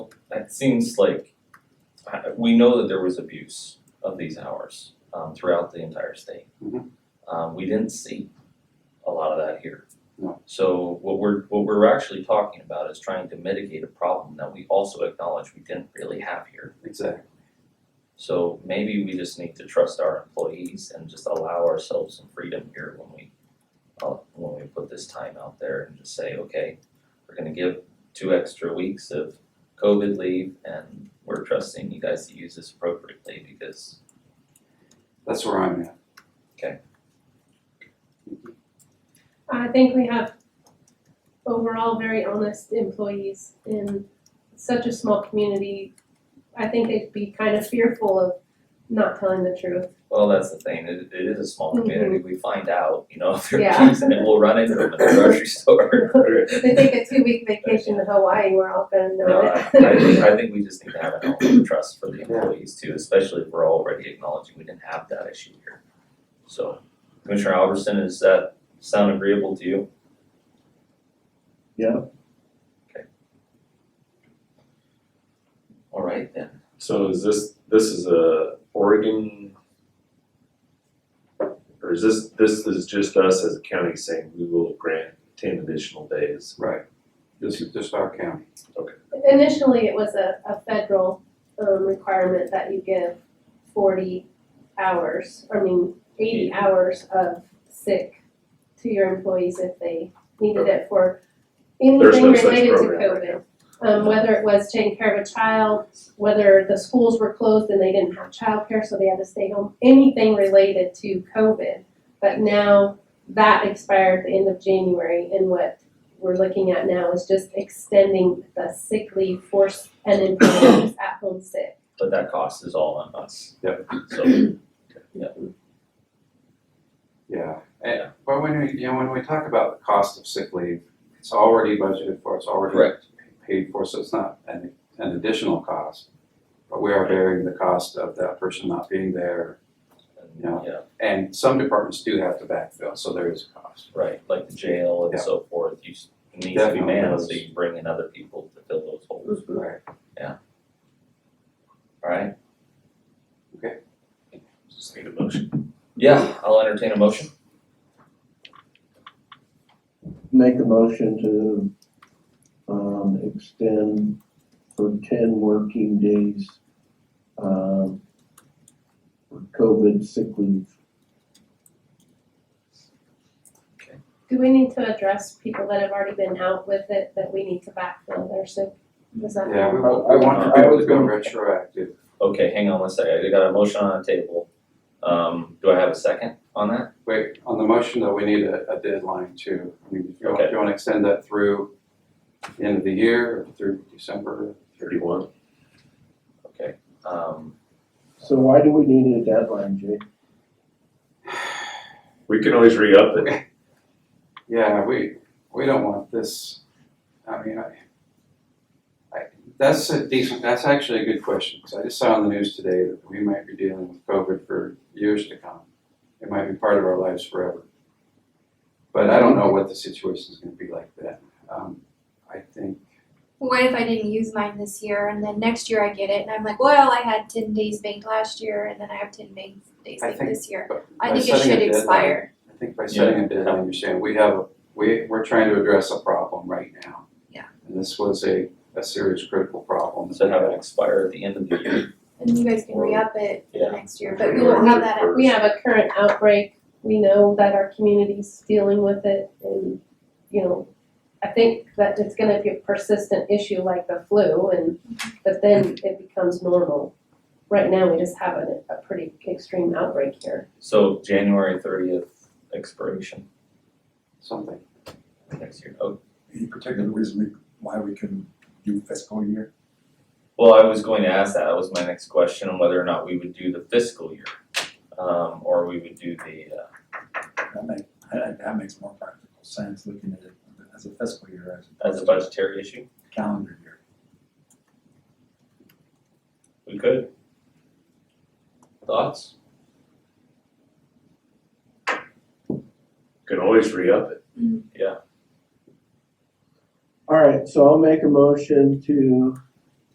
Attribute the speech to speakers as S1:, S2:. S1: that seems like, I, we know that there was abuse of these hours, um, throughout the entire state.
S2: Mhm.
S1: Um, we didn't see a lot of that here.
S2: No.
S1: So what we're, what we're actually talking about is trying to mitigate a problem that we also acknowledge we didn't really have here.
S2: Exactly.
S1: So maybe we just need to trust our employees and just allow ourselves some freedom here when we, uh, when we put this time out there and just say, okay, we're gonna give two extra weeks of COVID leave and we're trusting you guys to use this appropriately because
S2: That's where I'm at.
S3: I think we have overall very honest employees in such a small community. I think they'd be kind of fearful of not telling the truth.
S1: Well, that's the thing. It, it is a small community. We find out, you know, if they're
S3: Yeah.
S1: and then we'll run into them at the grocery store.
S3: They take a two week vacation to Hawaii, we're all gonna
S1: No,
S3: know
S1: I, I
S3: it.
S1: think, I think we just need to have an element of trust for the employees too, especially if we're already acknowledging we didn't have that issue here. So, Commissioner Albertson, does that sound agreeable to you?
S4: Yeah.
S1: Okay. All right then.
S4: So is this, this is a Oregon? Or is this, this is just us as a county saying we will grant ten additional days?
S2: Right. This is just our county.
S3: Initially, it was a, a federal, um, requirement that you give forty hours, I mean, eighty hours of sick to your employees if they needed it for
S4: There's
S3: anything
S4: no such
S3: related to COVID.
S4: program right now.
S3: Um, whether it was taking care of a child, whether the schools were closed and they didn't have childcare, so they had to stay home, anything related to COVID. But now that expired at the end of January, and what we're looking at now is just extending the sick leave for s- an employee who's at home sick.
S1: But that cost is all on us.
S2: Yep.
S1: So, yeah,
S2: Yeah.
S1: Yeah.
S2: And, but when we, you know, when we talk about the cost of sick leave, it's already budgeted for, it's already
S1: Correct.
S2: paid for, so it's not an, an additional cost. But we are bearing the cost of that person not being there.
S1: and,
S2: Yeah.
S1: yeah,
S2: And some departments do have to backfill, so there is a cost.
S1: right, like the jail and
S2: Yeah.
S1: so forth, you s- it needs to be
S2: Definitely.
S1: manned, so you bring in other people to fill those holes,
S2: Right.
S1: alright?
S2: Okay.
S1: Just need a motion. Yeah, I'll entertain a motion,
S5: Make a motion to, um, extend for ten working days, um, for COVID sick leave.
S3: Do we need to address people that have already been out with it, that we need to backfill their sick? Is that?
S2: Yeah, we,
S5: I-
S2: wa- we
S5: I-
S2: want to be
S5: Uh, I
S2: able to
S5: was
S2: go
S5: gonna-
S2: retroactive.
S1: okay, hang on one second, I got a motion on the table, um, do I have a second on that?
S2: Wait, on the motion though, we need a, a deadline too. I mean, if you,
S1: Okay.
S2: if you wanna extend that through the end of the year, or through December,
S4: Thirty-one?
S1: Okay, um,
S5: So why do we need a deadline, Jay?
S4: We can always re-up it.
S2: Yeah, we, we don't want this, I mean, I, I, that's a decent, that's actually a good question, because I just saw on the news today that we might be dealing with COVID for years to come. It might be part of our lives forever. But I don't know what the situation's gonna be like then. Um, I think,
S6: what if I didn't use mine this year and then next year I get it and I'm like, well, I had ten days banked last year and then I have ten bank days
S2: I
S6: banked
S2: think-
S6: this year.
S2: but
S6: I
S2: by
S6: think it
S2: setting a
S6: should
S2: deadline-
S6: expire.
S2: I think by setting a deadline, you're saying, we have, a we, we're trying to address a problem right now.
S6: Yeah.
S2: And this was a, a serious critical problem.
S1: so have it expire at the end of the year,
S6: And you guys can re-up it for
S1: Yeah.
S6: the next year, but we won't have that.
S3: We have a current outbreak, we know that our community's dealing with it and, you know, I think that it's gonna be a persistent issue like the flu and, but then it becomes normal. Right now, we just have a, a pretty extreme outbreak here.
S1: so January thirtieth expiration
S2: Something,
S1: next year, oh,
S7: Any particular reason we, why we can do fiscal year?
S1: Well, I was going to ask that, that was my next question, on whether or not we would do the fiscal year, um, or we would do the, uh,
S7: That make, that, that makes more practical sense, looking at it as a fiscal year, as
S1: as a
S7: opposed to
S1: budgetary issue,
S7: calendar year.
S1: we could. Thoughts?
S4: Can always re-up it.
S1: Yeah,
S5: All right, so I'll make a motion to